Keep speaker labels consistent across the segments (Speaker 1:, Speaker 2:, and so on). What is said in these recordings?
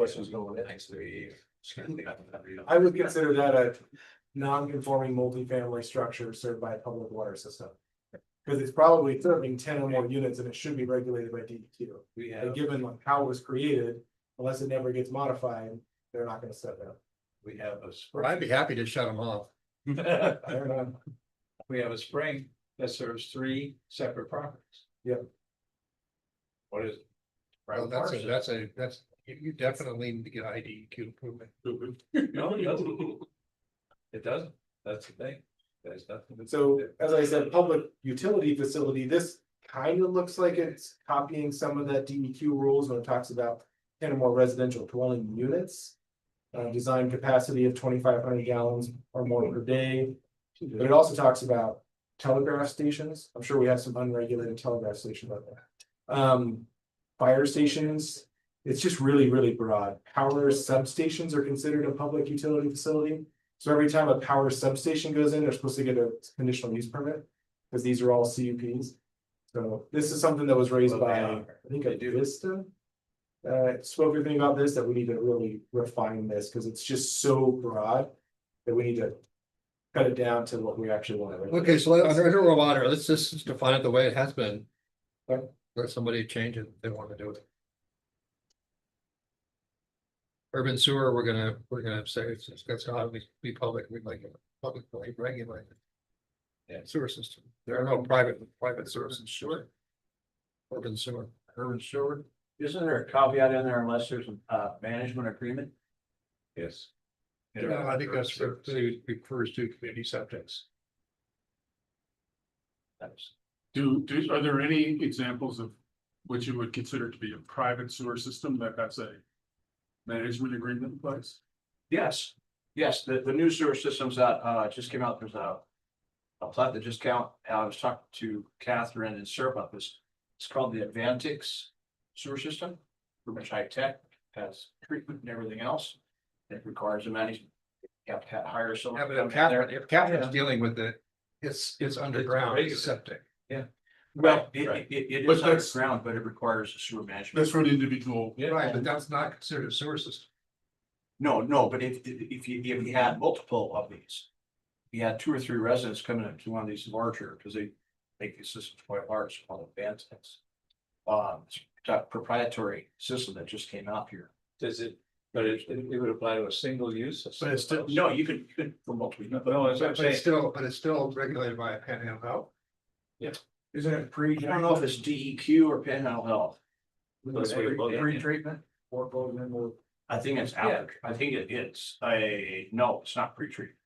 Speaker 1: questions going in.
Speaker 2: I would consider that a non-conforming multifamily structure served by a public water system. Because it's probably serving ten or more units and it should be regulated by DEQ.
Speaker 1: We have,
Speaker 2: And given like how it was created, unless it never gets modified, they're not gonna set that.
Speaker 1: we have a
Speaker 3: Well, I'd
Speaker 1: spring.
Speaker 3: be happy to shut them off.
Speaker 2: I don't know.
Speaker 1: We have a spring that serves three separate properties.
Speaker 2: Yep.
Speaker 1: What is? it?
Speaker 3: Well,
Speaker 1: Private
Speaker 3: that's a,
Speaker 1: parcel.
Speaker 3: that's a, that's, you- you definitely need to get IDQ approval.
Speaker 1: No, it doesn't. It doesn't, that's the thing, there's nothing.
Speaker 2: And
Speaker 1: that's-
Speaker 2: So, as I said, public utility facility, this kind of looks like it's copying some of that DEQ rules when it talks about ten or more residential dwelling units. Uh, design capacity of twenty-five hundred gallons or more per day, but it also talks about telegraph stations. I'm sure we have some unregulated telegraph stations out there. Um, fire stations, it's just really, really broad. Power substations are considered a public utility facility. So every time a power substation goes in, they're supposed to get a conditional use permit, because these are all CUPs. So this is something that was raised
Speaker 1: Well, they
Speaker 2: by, I
Speaker 1: are.
Speaker 2: think,
Speaker 1: They
Speaker 2: a
Speaker 1: do.
Speaker 2: Vista. Uh, spoke a thing about this, that we need to really refine this, because it's just so broad that we need to cut it down to what we actually want. to
Speaker 3: Okay, so under interim water, let's just define it the way it has been.
Speaker 2: Okay.
Speaker 3: Let somebody change it, if they want to do it. Urban sewer, we're gonna, we're gonna say, it's, it's, that's how we, be public, we like, it, publicly regulated.
Speaker 1: Yeah.
Speaker 3: Sewer system, there are no private, private services, sure. Urban sewer, urban sewer,
Speaker 4: Isn't there a caveat in there unless there's a uh, management agreement?
Speaker 1: Yes.
Speaker 3: Yeah, I think that's what it refers to community subjects.
Speaker 4: That's-
Speaker 5: Do, do, are there any examples of what you would consider to be a private sewer system that has a management agreement in place?
Speaker 4: Yes, yes, the, the new sewer systems that, uh, just came out, there's a. A plat that just count, I was talking to Catherine and Sarah about this, it's called the Advantix sewer system. Pretty much high tech, has treatment and everything else, it requires a management. You have to ha- hire someone.
Speaker 3: Yeah,
Speaker 4: to
Speaker 3: but
Speaker 4: come
Speaker 3: if
Speaker 4: in there.
Speaker 3: Catherine's, if Catherine's dealing with it, it's, it's underground
Speaker 1: regular.
Speaker 3: septic.
Speaker 4: Well, it,
Speaker 1: Right.
Speaker 4: it, it
Speaker 5: But
Speaker 4: is
Speaker 5: that's-
Speaker 4: underground, but it requires a sewer management.
Speaker 5: That's for an individual.
Speaker 1: Yeah.
Speaker 3: Right, but that's not considered a sewer system.
Speaker 4: No, no, but if, if you, if you had multiple of these. You had two or three residents coming into one of these larger, because they make these systems quite large, called advanced. Um, it's a proprietary system that just came out here.
Speaker 1: Does it, but it, it would apply to a single use. a
Speaker 3: But
Speaker 1: single
Speaker 3: it's still-
Speaker 1: house?
Speaker 4: No, you could, you could for multiple. you could-
Speaker 1: No, that's what I'm
Speaker 3: But it's
Speaker 1: saying,
Speaker 3: still, but it's still regulated by a panhandle health.
Speaker 2: Isn't it
Speaker 4: I
Speaker 2: pre?
Speaker 4: don't know if it's DEQ or Panhandle Health.
Speaker 1: That's what it was.
Speaker 4: Pre-treatment?
Speaker 2: Or vote in with-
Speaker 4: I think it's
Speaker 1: Yeah.
Speaker 4: after, I think it- it's a, no, it's not pre-treatment.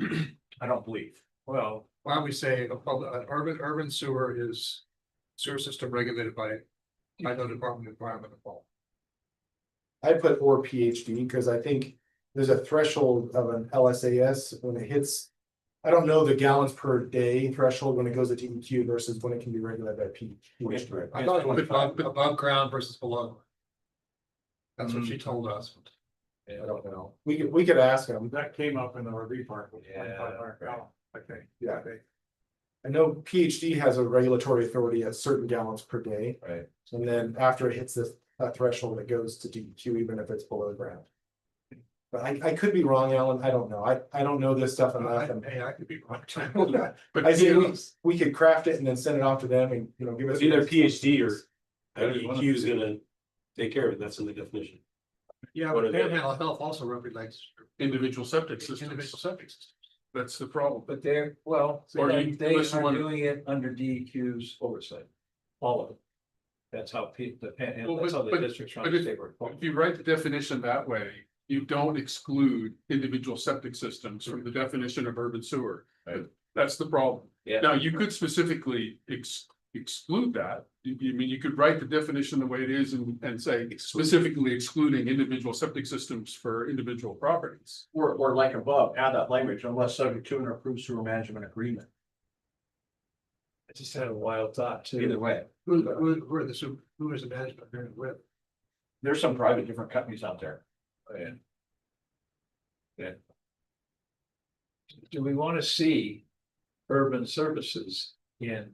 Speaker 4: I don't believe.
Speaker 1: well,
Speaker 3: Why don't we say a public, an urban, urban sewer is sewer system regulated by, by the Department of Environment and Health.
Speaker 2: I put or PhD because I think there's a threshold of an LSAS when it hits. I don't know the gallons per day threshold when it goes to DEQ versus when it can be regulated by P. PhD.
Speaker 3: I thought it was
Speaker 4: 25.
Speaker 3: above, above ground versus below. That's what
Speaker 4: Mm.
Speaker 3: she told us.
Speaker 2: I don't know. We could, we could ask them.
Speaker 5: That came up in the RV park. with
Speaker 1: Yeah.
Speaker 5: 25 gallon, I think.
Speaker 2: Yeah. I know PhD has a regulatory authority at certain gallons per day.
Speaker 1: Right.
Speaker 2: And then after it hits this, that threshold, it goes to DEQ even if it's below ground. But I, I could be wrong, Alan. I don't know. I, I don't know this stuff enough and
Speaker 3: Hey, I could be wrong.
Speaker 5: But
Speaker 2: I see, we,
Speaker 5: still,
Speaker 2: we could craft it and then send it off to them and, you know, give us.
Speaker 6: It's either PhD or
Speaker 1: I E don't wanna-
Speaker 6: IDQ is gonna take care of it, that's in the definition.
Speaker 3: Yeah,
Speaker 6: What
Speaker 3: but
Speaker 6: are they?
Speaker 3: panhandle health also regulates
Speaker 5: individual septic
Speaker 3: individual
Speaker 5: systems,
Speaker 3: septic systems.
Speaker 5: that's the problem.
Speaker 1: but they're, well,
Speaker 5: So
Speaker 1: they
Speaker 5: you-
Speaker 1: they
Speaker 5: unless you
Speaker 1: are
Speaker 5: wanna-
Speaker 1: doing it under DEQ's oversight. All of it. That's how pe- the, pan-
Speaker 5: Well,
Speaker 1: that's
Speaker 5: but-
Speaker 1: how the
Speaker 5: but-
Speaker 1: districts
Speaker 5: but
Speaker 1: trying to
Speaker 5: if-
Speaker 1: stay were.
Speaker 5: If you write the definition that way, you don't exclude individual septic systems from the definition of urban sewer.
Speaker 1: Right.
Speaker 5: That's the problem.
Speaker 1: Yeah.
Speaker 5: Now, you could specifically ex- exclude that. You, you mean, you could write the definition the way it is and, and say specifically excluding individual septic systems for individual properties.
Speaker 4: Or, or like above, add that language unless subject to an approved sewer management agreement.
Speaker 1: I just had a wild thought too.
Speaker 4: Either way,
Speaker 3: Who, who, who are the, su- who is the management agreement with?
Speaker 4: there's some private different companies out there.
Speaker 1: Oh, Yeah. Yeah. Do we want to see urban services in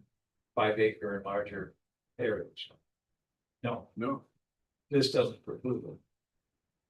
Speaker 1: five acre and larger areas? No,
Speaker 5: No,
Speaker 1: this doesn't preclude them.